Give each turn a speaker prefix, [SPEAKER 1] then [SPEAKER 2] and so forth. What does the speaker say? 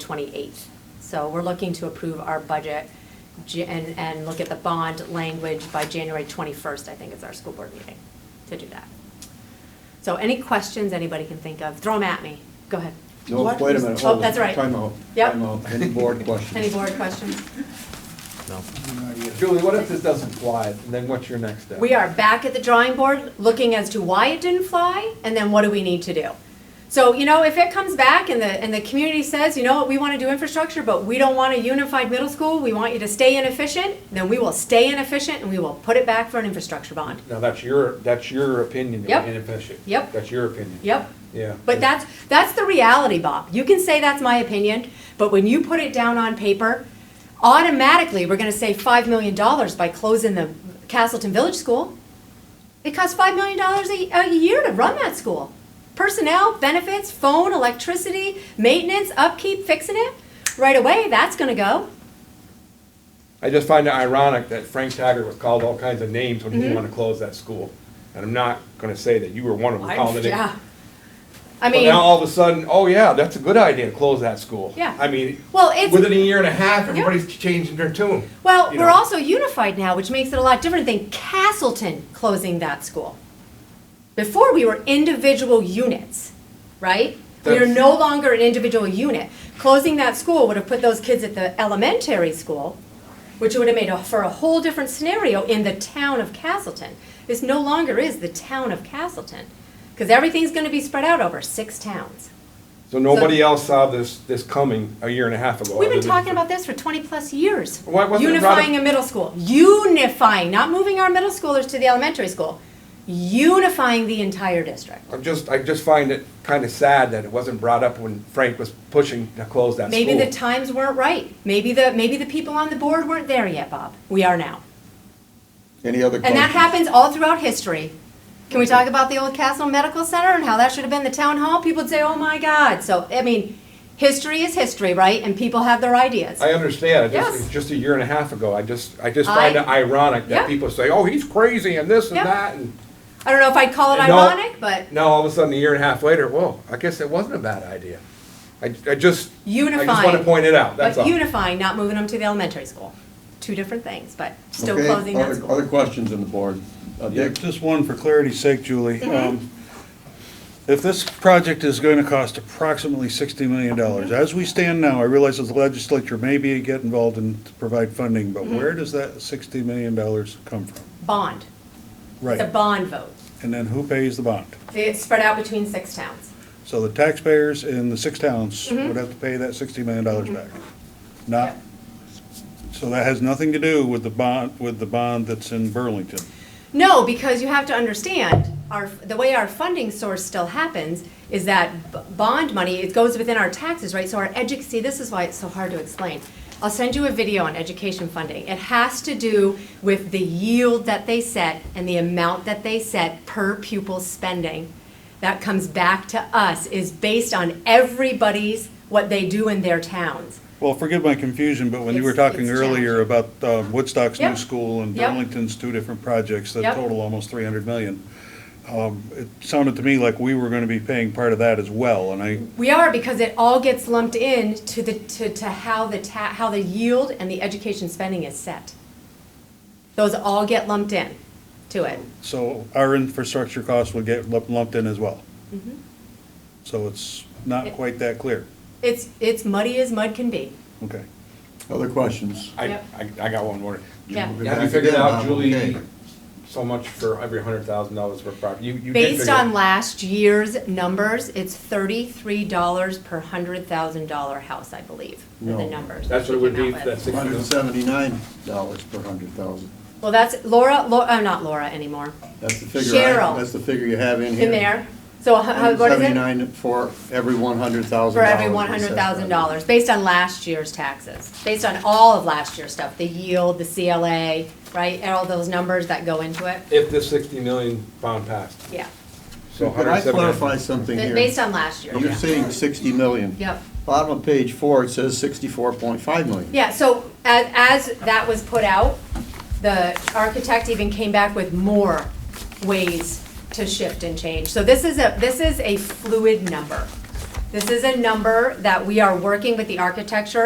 [SPEAKER 1] 28th. So we're looking to approve our budget Ja- and, and look at the bond language by January 21st, I think is our school board meeting, to do that. So any questions anybody can think of, throw them at me. Go ahead.
[SPEAKER 2] No,
[SPEAKER 3] What
[SPEAKER 2] wait a
[SPEAKER 3] is-
[SPEAKER 2] minute,
[SPEAKER 1] Oh,
[SPEAKER 2] hold on.
[SPEAKER 1] that's right.
[SPEAKER 2] Time out,
[SPEAKER 1] Yep.
[SPEAKER 2] time out, any board questions?
[SPEAKER 1] Any board questions?
[SPEAKER 2] Julie, what if this doesn't fly, and then what's your next step?
[SPEAKER 1] We are back at the drawing board, looking as to why it didn't fly, and then what do we need to do? So, you know, if it comes back and the, and the community says, you know what, we want to do infrastructure, but we don't want a unified middle school, we want you to stay inefficient, then we will stay inefficient and we will put it back for an infrastructure bond.
[SPEAKER 2] Now, that's your, that's your opinion,
[SPEAKER 1] Yep.
[SPEAKER 2] inefficient.
[SPEAKER 1] Yep.
[SPEAKER 2] That's your opinion.
[SPEAKER 1] Yep.
[SPEAKER 2] Yeah.
[SPEAKER 1] But that's, that's the reality, Bob. You can say that's my opinion, but when you put it down on paper, automatically, we're gonna save five million dollars by closing the Castleton Village School. It costs five million dollars a, a year to run that school. Personnel, benefits, phone, electricity, maintenance, upkeep, fixing it, right away, that's gonna go.
[SPEAKER 4] I just find it ironic that Frank Taggart was called all kinds of names when he
[SPEAKER 1] Mm-hmm.
[SPEAKER 4] didn't want to close that school. And I'm not going to say that you were one of them calling it.
[SPEAKER 1] Yeah. I
[SPEAKER 4] But
[SPEAKER 1] mean,
[SPEAKER 4] now all of a sudden, oh yeah, that's a good idea to close that school.
[SPEAKER 1] Yeah.
[SPEAKER 4] I mean,
[SPEAKER 1] well, it's.
[SPEAKER 4] within a year and a half, everybody's changing their tune.
[SPEAKER 1] Well,
[SPEAKER 4] you
[SPEAKER 1] we're
[SPEAKER 4] know.
[SPEAKER 1] also unified now, which makes it a lot different than Castleton closing that school. Before, we were individual units, right? We are
[SPEAKER 4] That's-
[SPEAKER 1] no longer an individual unit. Closing that school would have put those kids at the elementary school, which would have made a- for a whole different scenario in the town of Castleton. This no longer is the town of Castleton, because everything's going to be spread out over six towns.
[SPEAKER 4] So nobody else saw this, this coming a year and a half ago.
[SPEAKER 1] We've been
[SPEAKER 4] other than-
[SPEAKER 1] talking about this for 20-plus years.
[SPEAKER 4] Why wasn't it brought up-
[SPEAKER 1] Unifying a middle school. Unifying, not moving our middle schoolers to the elementary school. Unifying the entire district.
[SPEAKER 4] I'm just, I just find it kind of sad that it wasn't brought up when Frank was pushing to close that school.
[SPEAKER 1] Maybe the times weren't right. Maybe the, maybe the people on the board weren't there yet, Bob. We are now.
[SPEAKER 2] Any other
[SPEAKER 1] And
[SPEAKER 2] questions?
[SPEAKER 1] that happens all throughout history. Can we talk about the old Castle Medical Center and how that should have been the town hall? People would say, oh my God. So, I mean, history is history, right? And people have their ideas.
[SPEAKER 4] I understand, it
[SPEAKER 1] Yes.
[SPEAKER 4] just, it's just a year and a half ago, I just, I just find it
[SPEAKER 1] I-
[SPEAKER 4] ironic
[SPEAKER 1] Yeah.
[SPEAKER 4] that people say, oh, he's crazy and this and
[SPEAKER 1] Yeah.
[SPEAKER 4] that, and
[SPEAKER 1] I don't know if I'd call it
[SPEAKER 4] No.
[SPEAKER 1] ironic, but
[SPEAKER 4] now all of a sudden, a year and a half later, whoa, I guess it wasn't a bad idea. I, I just, I just
[SPEAKER 1] unifying.
[SPEAKER 4] wanna point it out, that's
[SPEAKER 1] But
[SPEAKER 4] all.
[SPEAKER 1] unifying, not moving them to the elementary school. Two different things, but still
[SPEAKER 2] Okay,
[SPEAKER 1] closing that
[SPEAKER 2] other-
[SPEAKER 1] school.
[SPEAKER 2] Other questions on the board? Uh,
[SPEAKER 3] Yeah,
[SPEAKER 2] Dick?
[SPEAKER 3] just one for clarity's sake, Julie. Um, If this project is going to cost approximately $60 million, as we stand now, I realize that the legislature may be get involved and provide funding, but where does that $60 million come from?
[SPEAKER 1] Bond. It's a
[SPEAKER 3] Right,
[SPEAKER 1] bond vote.
[SPEAKER 3] and then who pays the bond?
[SPEAKER 1] It's spread out between six towns.
[SPEAKER 3] So the taxpayers in the six towns would have to pay that $60 million back. Not, so that has nothing to do with the bond, with the bond that's in Burlington.
[SPEAKER 1] No, because you have to understand, our, the way our funding source still happens is that b- bond money, it goes within our taxes, right? So our edu, see, this is why it's so hard to explain. I'll send you a video on education funding. It has to do with the yield that they set and the amount that they set per pupil spending that comes back to us is based on everybody's, what they do in their towns.
[SPEAKER 3] Well, forgive my confusion, but when you were
[SPEAKER 1] It's- it's
[SPEAKER 3] talking earlier about um, Woodstock's
[SPEAKER 1] Yeah.
[SPEAKER 3] new school and
[SPEAKER 1] Yep.
[SPEAKER 3] Burlington's two different projects that
[SPEAKER 1] Yep.
[SPEAKER 3] total almost 300 million, um, it sounded to me like we were going to be paying part of that as well, and I,
[SPEAKER 1] We are, because it all gets lumped in to the, to, to how the ta, how the yield and the education spending is set. Those all get lumped in to it.
[SPEAKER 3] so our infrastructure costs would get lump- lumped in as well.
[SPEAKER 1] Mm-hmm.
[SPEAKER 3] So it's not quite that clear.
[SPEAKER 1] It's, it's muddy as mud can be.
[SPEAKER 3] Okay.
[SPEAKER 2] Other questions?
[SPEAKER 4] I,
[SPEAKER 1] Yep.
[SPEAKER 4] I, I got one more.
[SPEAKER 1] Yeah.
[SPEAKER 4] Have
[SPEAKER 2] We're
[SPEAKER 4] you
[SPEAKER 2] back
[SPEAKER 4] figured
[SPEAKER 2] again,
[SPEAKER 4] out,
[SPEAKER 2] Bob,
[SPEAKER 4] Julie,
[SPEAKER 2] okay.
[SPEAKER 4] so much for every hundred thousand dollars worth of property? You, you did
[SPEAKER 1] Based
[SPEAKER 4] figure
[SPEAKER 1] on
[SPEAKER 4] it.
[SPEAKER 1] last year's numbers, it's thirty-three dollars per hundred thousand dollar house, I believe, are the
[SPEAKER 2] No.
[SPEAKER 1] numbers.
[SPEAKER 4] That's
[SPEAKER 1] that
[SPEAKER 4] what it
[SPEAKER 1] we came
[SPEAKER 4] would be
[SPEAKER 1] out
[SPEAKER 4] for
[SPEAKER 1] with.
[SPEAKER 4] that sixty.
[SPEAKER 2] Hundred and seventy-nine dollars per hundred thousand.
[SPEAKER 1] Well, that's Laura, Laura, oh, not Laura anymore,
[SPEAKER 2] That's the figure. I-
[SPEAKER 1] Cheryl.
[SPEAKER 2] That's the figure you have in here.
[SPEAKER 1] in there. So how- how- what is it?
[SPEAKER 2] Seventy-nine for every one hundred thousand
[SPEAKER 1] For
[SPEAKER 2] dollars.
[SPEAKER 1] every one hundred thousand dollars, based on last year's taxes, based on all of last year's stuff, the yield, the CLA, right, and all those numbers that go into it,
[SPEAKER 4] If this sixty million pound passed,
[SPEAKER 1] yeah,
[SPEAKER 4] so
[SPEAKER 2] Could I
[SPEAKER 4] 170
[SPEAKER 2] clarify something
[SPEAKER 1] Ba-
[SPEAKER 2] here?
[SPEAKER 1] based on last year,
[SPEAKER 2] You're
[SPEAKER 1] yeah.
[SPEAKER 2] saying sixty million.
[SPEAKER 1] Yep,
[SPEAKER 2] Bottom of page four, it says sixty-four point five million.
[SPEAKER 1] yeah, so as, as that was put out, the architect even came back with more ways to shift and change, so this is a, this is a fluid number. This is a number that we are working with the architecture